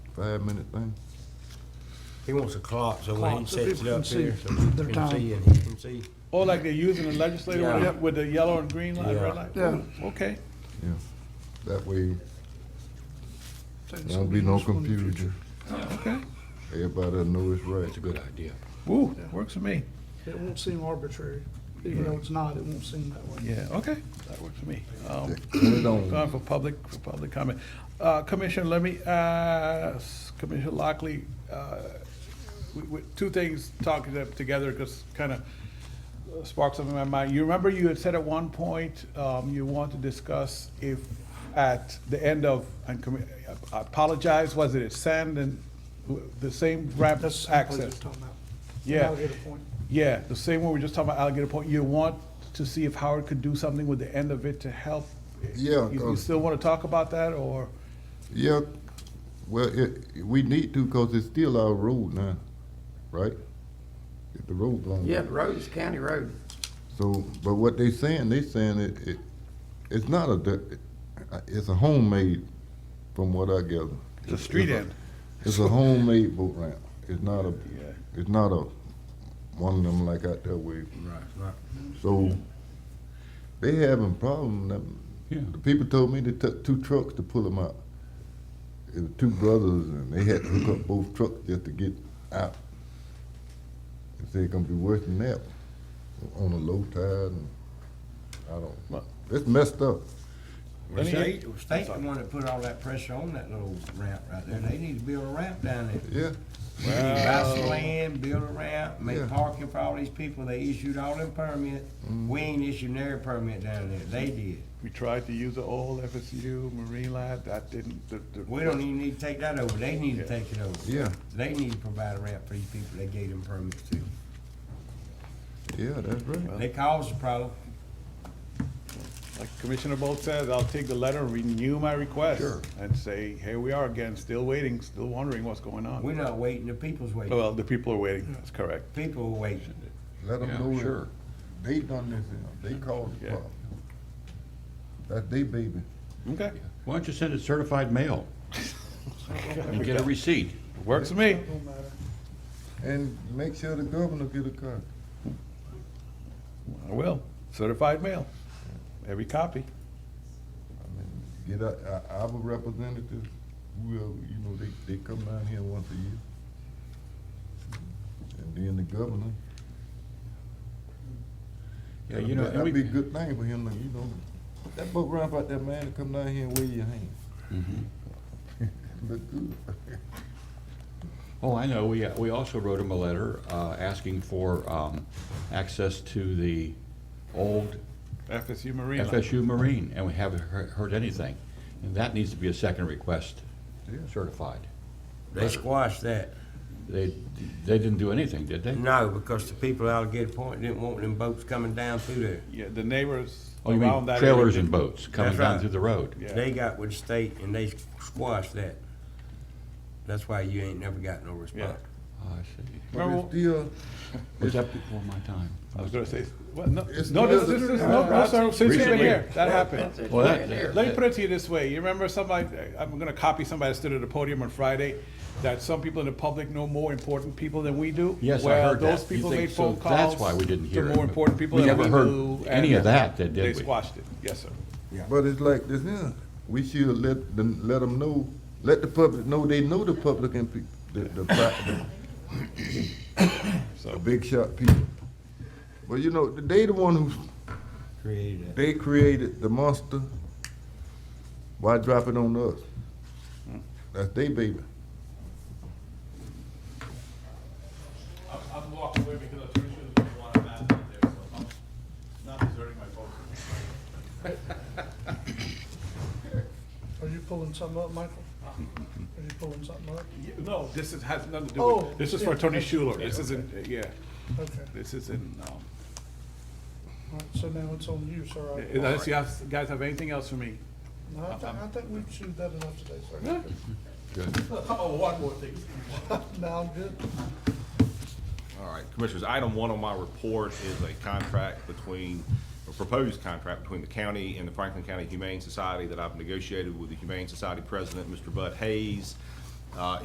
five-minute thing? He wants a clock, so when he Clock, so sets it people up can here, see so people their can time. see and he can see. Or like they're using the legislator with Yeah. the- with the yellow and green light, Yeah. red light? Yeah. Okay. Yeah. That way, So it's there'll gonna be no useful in the future. confusion. Okay. Everybody'll know it's right. That's a good idea. Woo, works for me. It won't seem arbitrary, even though it's not, it won't seem that way. Yeah, okay, that works for me. Um, Put it Gone on. for public, for public comment. Uh, Commissioner, let me ask Commissioner Lockley, uh, we- we- two things talking to- together because kind of sparked something in my mind. You remember you had said at one point um, you want to discuss if at the end of, and commi- I apologize, was it at Sand and w- the same ramp That's the place we're access? talking about. Yeah. Alligator Point. Yeah, the same one we just talked about Alligator Point. You want to see if Howard could do something with the end of it to help? Yeah, You- You uh, still want to talk about that, or? Yeah, well, it, we need to, cause it's still our road now, right? If The road belongs. Yeah, the road is county road. So, but what they saying, they saying it, it, it's not a, di- it's a homemade, from what I gather. The street it's a- end. It's a homemade boat ramp. It's not a, Yeah. it's not a, one of them like out there with, Right, right. so they having problem. them- The people told me they took two trucks to pull them out. It was two brothers and they had to hook up both trucks just to get out. They said it's gonna be worse than that on a low tide and I don't, Well- it's messed up. Well, Any- state, the state the one that put all that pressure on that little ramp right there. They need to build a ramp down there. Yeah, You need to buy some land, build a ramp, Yeah. make parking for all these people. They issued all them permits. We ain't issued their permit down there. They did. We tried to use the old FSU Marine Lab, that didn't, the, the. We don't even need to take that over. They need to Yeah. take it over. yeah, They need to provide a ramp for these people they gave them permits to. yeah, that's right. They caused the problem. Like Commissioner Bolt says, I'll take the letter, renew my request. Sure. And say, here we are again, still waiting, still wondering what's going We're on. not waiting, the people's waiting. Well, the people are waiting, that's correct. People are waiting. Let them Yeah, know sure. that they done this, and they caused the Yeah. problem. That's they baby. Okay, Why don't you send it certified mail? And get a receipt. works for me. Don't matter. And make sure the governor get a car. I will, certified mail, every copy. I mean, Get our, our- our representatives, well, you know, they, they come down here once a year. And then the governor. Yeah, you know, and That'd be a we, good thing for him, you know. That boat ramp out there, man, to come down here and wave your hand. Mm-hmm. Look good. oh, I know, we, we also wrote him a letter, uh, asking for, um, access to the old FSU Marine Lab. FSU Marine, and we haven't he- heard anything. And that needs to be a second request Yeah. certified. They squashed that. They, they didn't do anything, did they? No, because the people out of Gator Point didn't want them boats coming down through there. Yeah, the neighbors Oh, you around mean that. trailers area. and boats coming That's down right. through the road? Yeah. They got with the state and they squashed that. That's why you ain't never got no response. Oh, I see. But Remember- it's still, Was that before my time? I was gonna say, well, no, no, It's this is, no, just- no, sir, since you've been here, that happened. Well, that- Let me put it to you this way, you remember somebody, I'm gonna copy somebody that stood at the podium on Friday, that some people in the public know more important people than we do? Yes, I Well, heard that. those You people think- made phone so that's calls why we didn't hear To it, more but important people we than we never heard do. any and of that, did They we? squashed it, yes, sir. but it's like this, yeah, we should let them, let them know, let the public know, they know the public and people, the, the, pri- the So, big shot people. But you know, they the one who's Created that. They created the monster. Why drop it on us? That's they baby. I'm, I'm walking away because I'm pretty sure there's gonna be a lot of math out there, so I'm not deserting my vote. Are you pulling something up, Michael? Are you pulling something up? Yeah, No, this is, has nothing to do Oh, with, this is for yeah. Attorney Schuler, this isn't, yeah, Okay, this isn't, um, all right, so now it's on you, sir. I- Unless you have- guys have anything else for me? No, I think, I think we've chewed that enough today, sir. Good. Oh, one more thing. Now, I'm good. All right, Commissioners, item one on my report is a contract between, a proposed contract between the county and the Franklin County Humane Society that I've negotiated with the Humane Society President, Mr. Bud Hayes. Uh,